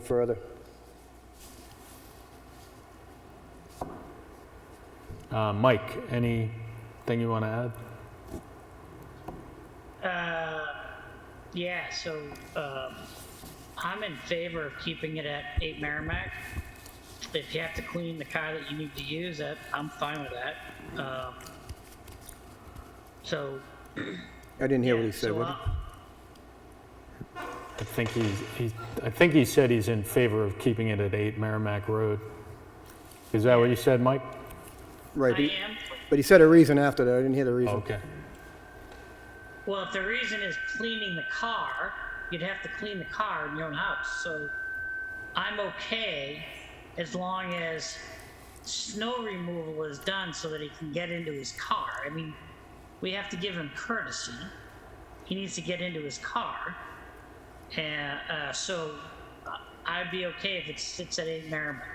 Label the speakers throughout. Speaker 1: further?
Speaker 2: Uh, Mike, anything you want to add?
Speaker 3: Yeah, so um, I'm in favor of keeping it at 8 Merrimack. If you have to clean the car that you need to use, that I'm fine with that. Um, so
Speaker 1: I didn't hear what he
Speaker 3: yeah,
Speaker 1: said.
Speaker 3: so
Speaker 1: What-
Speaker 3: I'll-
Speaker 2: I think he's, he's, I think he said he's in favor of keeping it at 8 Merrimack Road. Is that what you said, Mike?
Speaker 1: Right,
Speaker 3: I
Speaker 1: he-
Speaker 3: am.
Speaker 1: but he said a reason after that. I didn't hear the reason.
Speaker 2: Okay.
Speaker 3: Well, if the reason is cleaning the car, you'd have to clean the car in your own house. So I'm okay as long as snow removal is done so that he can get into his car. I mean, we have to give him courtesy. He needs to get into his car. And uh, so uh, I'd be okay if it sits at 8 Merrimack.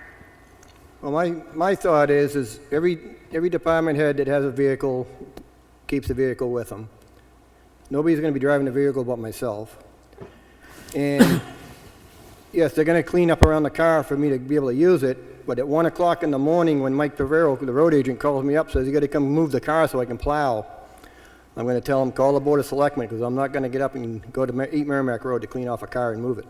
Speaker 1: Well, my, my thought is, is every, every department head that has a vehicle keeps the vehicle with them. Nobody's gonna be driving the vehicle but myself. And, yes, they're gonna clean up around the car for me to be able to use it, but at one o'clock in the morning, when Mike Pavero, the road agent, calls me up, says, you gotta come move the car so I can plow, I'm gonna tell him, call the board of selectmen, because I'm not gonna get up and go to Mer- Eat Merrimack Road to clean off a car and move it.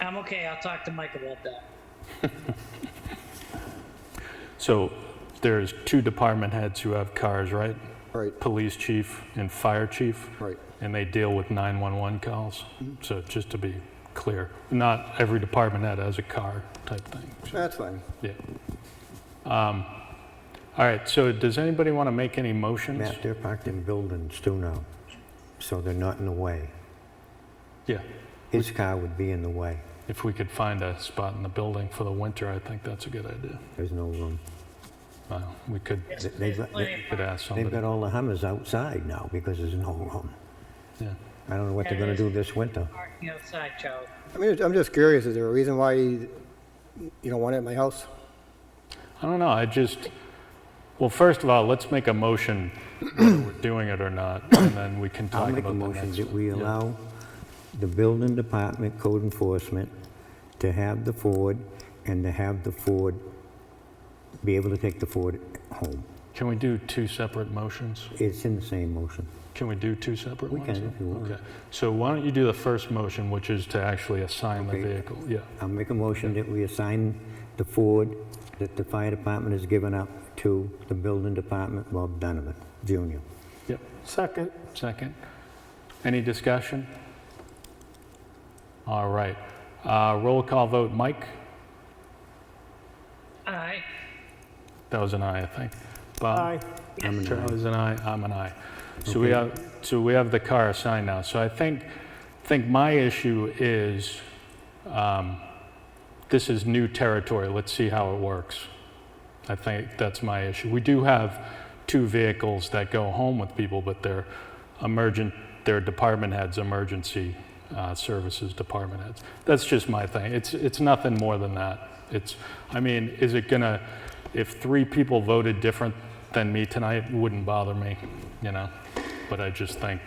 Speaker 3: I'm okay. I'll talk to Mike about that.
Speaker 2: So there's two department heads who have cars, right?
Speaker 1: Right,
Speaker 2: Police chief and fire chief.
Speaker 1: right.
Speaker 2: And they deal with 911 calls. So just to be clear, not every department head has a car type thing. So,
Speaker 1: That's fine.
Speaker 2: Yeah. Um, All right, so does anybody want to make any motions?
Speaker 4: Matt, they're parked in buildings too now, so they're not in the way.
Speaker 2: Yeah.
Speaker 4: His car would be in the way.
Speaker 2: If we could find a spot in the building for the winter, I think that's a good idea.
Speaker 4: There's no room.
Speaker 2: Well, we could,
Speaker 3: Yes,
Speaker 4: They- they've-
Speaker 3: there's plenty of
Speaker 2: could ask
Speaker 4: They've got
Speaker 2: somebody.
Speaker 4: all the Hummers outside now because there's no room.
Speaker 2: Yeah.
Speaker 4: I don't know what they're gonna do this winter.
Speaker 3: parking outside, Charlie.
Speaker 1: I mean, I'm just curious, is there a reason why you don't want it at my house?
Speaker 2: I don't know, I just, well, first of all, let's make a motion whether we're doing it or not, and then we can
Speaker 4: I'll
Speaker 2: talk
Speaker 4: make
Speaker 2: about
Speaker 4: a
Speaker 2: the
Speaker 4: motion
Speaker 2: next
Speaker 4: that
Speaker 2: one.
Speaker 4: we allow the building department, code enforcement, to have the Ford and to have the Ford, be able to take the Ford home.
Speaker 2: Can we do two separate motions?
Speaker 4: It's in the same motion.
Speaker 2: Can we do two separate
Speaker 4: We
Speaker 2: ones?
Speaker 4: can if you want.
Speaker 2: Okay, so why don't you do the first motion, which is to actually assign the
Speaker 4: Okay.
Speaker 2: vehicle? Yeah,
Speaker 4: I'll make a motion that we assign the Ford that the fire department has given up to the building department, Bob Donovan, Jr.
Speaker 2: yep. Second. Second. Any discussion? All right, Uh, roll call vote, Mike?
Speaker 3: All right.
Speaker 2: That was an aye, I think. Bob? Aye.
Speaker 4: I'm an aye.
Speaker 2: Charlie's an aye, I'm an aye. So we have, so we have the car assigned now. So I think, think my issue is, um, this is new territory, let's see how it works. I think that's my issue. We do have two vehicles that go home with people, but they're emergent, they're department heads, emergency uh, services department heads. That's just my thing. It's, it's nothing more than that. It's, I mean, is it gonna, if three people voted different than me tonight, it wouldn't bother me, you know? But I just think,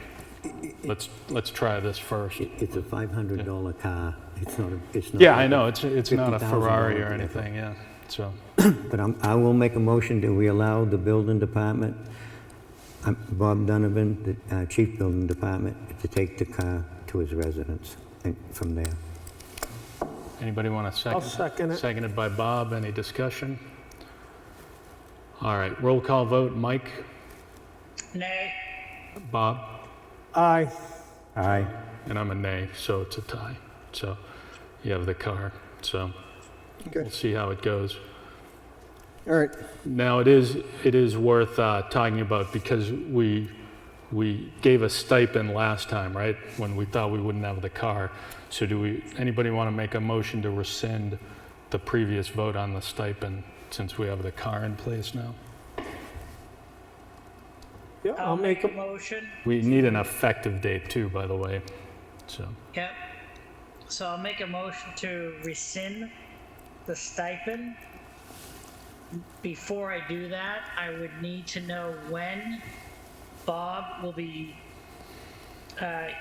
Speaker 2: let's, let's try this first.
Speaker 4: It- It's a $500 car. It's not, a. it's not.
Speaker 2: Yeah,
Speaker 4: like
Speaker 2: I
Speaker 4: a-
Speaker 2: know, it's, it's not a
Speaker 4: $50,000
Speaker 2: Ferrari or
Speaker 4: vehicle.
Speaker 2: anything, yeah, so.
Speaker 4: But I'm, I will make a motion that we allow the building department, um, Bob Donovan, the uh, chief building department, to take the car to his residence and from there.
Speaker 2: Anybody want to second? I'll second it. Seconded by Bob. Any discussion? All right, roll call vote. Mike?
Speaker 3: Nay.
Speaker 2: Bob?
Speaker 5: Aye.
Speaker 4: Aye.
Speaker 2: And I'm a nay, so it's a tie. So you have the car, so
Speaker 1: Okay,
Speaker 2: we'll see how it goes.
Speaker 1: all right.
Speaker 2: Now, it is, it is worth uh, talking about because we, we gave a stipend last time, right? When we thought we wouldn't have the car. So do we, anybody want to make a motion to rescind the previous vote on the stipend since we have the car in place now?
Speaker 5: Yeah, I'll make
Speaker 3: a
Speaker 5: a,
Speaker 3: motion.
Speaker 2: We need an effective date too, by the way. So,
Speaker 3: Yep. So I'll make a motion to rescind the stipend. Before I do that, I would need to know when Bob will be uh,